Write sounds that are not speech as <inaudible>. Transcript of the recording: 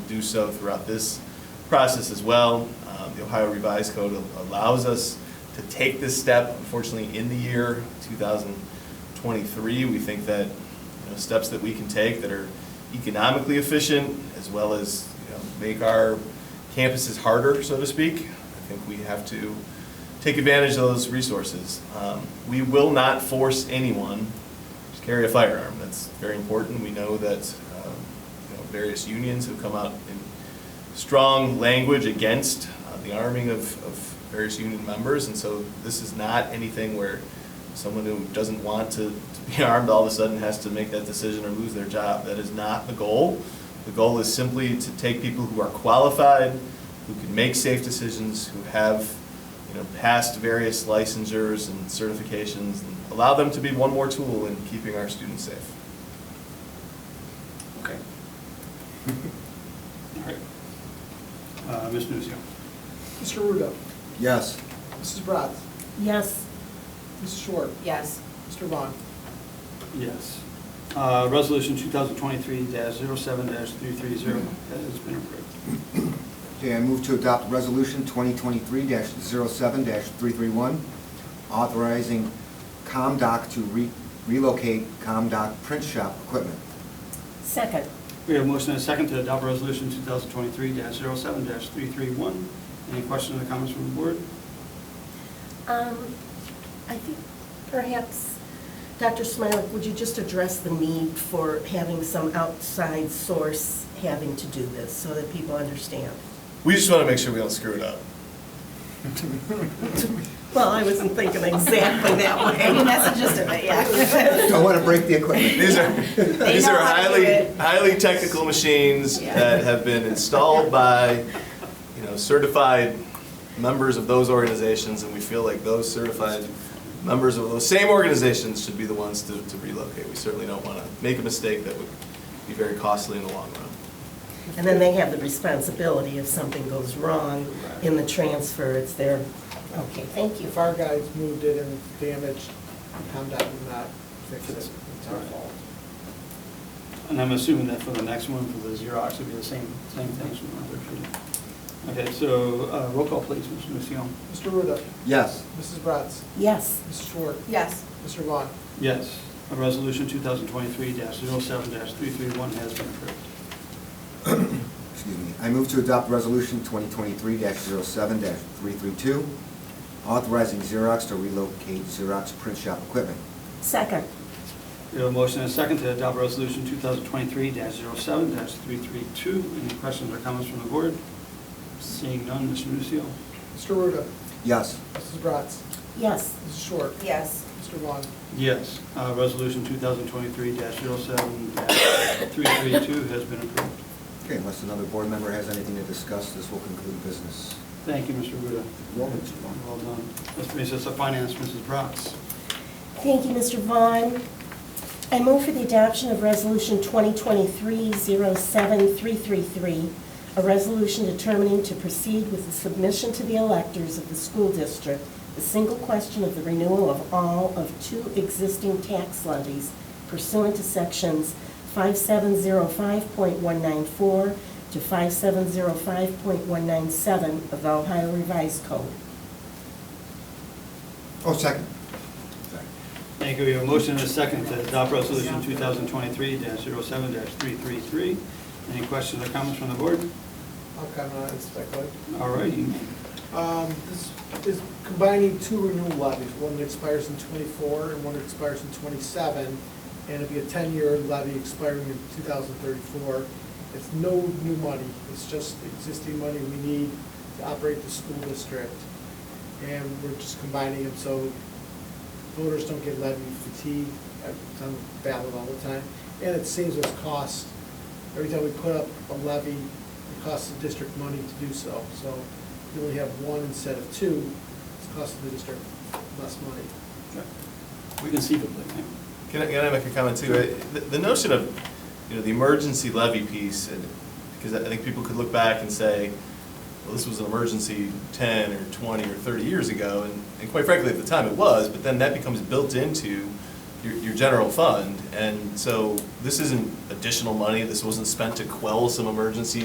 do so throughout this process as well. Uh, The Ohio Revised Code allows us to take this step, unfortunately, in the year 2023. We think that, you know, steps that we can take that are economically efficient, as well as, you know, make our campuses harder, so to speak. I think we have to take advantage of those resources. Um, We will not force anyone to carry a firearm. That's very important. We know that um, you know, various unions have come out in strong language against uh, the arming of, of various union members, and so this is not anything where someone who doesn't want to, to be <laughs> armed all of a sudden has to make that decision or lose their job. That is not the goal. The goal is simply to take people who are qualified, who can make safe decisions, who have you know, past various licensures and certifications, and allow them to be one more tool in keeping our students safe. Okay. All right. Uh, Ms. Nusio. Mr. Ruda. Yes. Mrs. Bratz. Yes. Mrs. Short. Yes. Mr. Vaughn. Yes. Uh, Resolution 2023-07-330 has been approved. Okay, I move to adopt Resolution 2023-07-331, authorizing ComDoc to re- relocate ComDoc print shop equipment. Second. We have a motion and a second to adopt Resolution 2023-07-331. Any questions or comments from the board? Um, I think perhaps, Dr. Smilak, would you just address the need for having some outside source having to do this so that people understand? We just want to make sure we don't screw it up. Well, I wasn't thinking exactly that <laughs> <laughs> way. That's just a bit, yeah. Don't want to break the equipment. These are, <laughs> They these know are how to do highly, it. highly technical machines Yeah. that have been installed by, you know, certified members of those organizations, and we feel like those certified members of those same organizations should be the ones to to relocate. We certainly don't want to make a mistake that would be very costly in the long run. And then they have the responsibility if something goes wrong in the transfer, it's their, okay, thank you. If our guys moved it and it's damaged, Comdot would not fix it. It's our fault. And I'm assuming that for the next one, for the Xerox, it'll be the same, same things from the other two. Okay, so uh, roll call, please, Ms. Nusio. Mr. Ruda. Yes. Mrs. Bratz. Yes. Mrs. Short. Yes. Mr. Vaughn. Yes. Resolution 2023-07-331 has been approved. Excuse me. I move to adopt Resolution 2023-07-332, authorizing Xerox to relocate Xerox print shop equipment. Second. We have a motion and a second to adopt Resolution 2023-07-332. Any questions or comments from the board? Seeing none, Mr. Nucio. Mr. Ruda. Yes. Mrs. Bratz. Yes. Mrs. Short. Yes. Mr. Vaughn. Yes. Uh, Resolution 2023-07-332 has been approved. Okay, unless another board member has anything to discuss, this will conclude business. Thank you, Mr. Ruda. Well done, Mr. Vaughn. Well done. This brings us to finance, Mrs. Bratz. Thank you, Mr. Vaughn. I move for the adoption of Resolution 2023-07333, a resolution determining to proceed with the submission to the electors of the school district, the single question of the renewal of all of two existing tax levies pursuant to Sections 5705.194 to 5705.197 of the Ohio Revised Code. Oh, second. Thank you. We have a motion and a second to adopt Resolution 2023-07-333. Any questions or comments from the board? I'll comment on it, it's speculative. All right, you may. Um, This is combining two renewal levies, one that expires in '24 and one that expires in '27, and it'll be a 10-year levy expiring in 2034. It's no new money, it's just existing money we need to operate the school district, and we're just combining them so voters don't get levy fatigue, uh, it's on the ballot all the time, and it saves us cost. Every time we put up a levy, it costs the district money to do so, so you only have one instead of two, it's costing the district less money. We can see the blink. Can I, can I make a comment too? Uh, The, the notion of, you know, the emergency levy piece, and, because I think people could look back and say, well, this was an emergency ten or twenty or thirty years ago, and, and quite frankly, at the time it was, but then that becomes built into your, your general fund. And so this isn't additional money, this wasn't spent to quell some emergency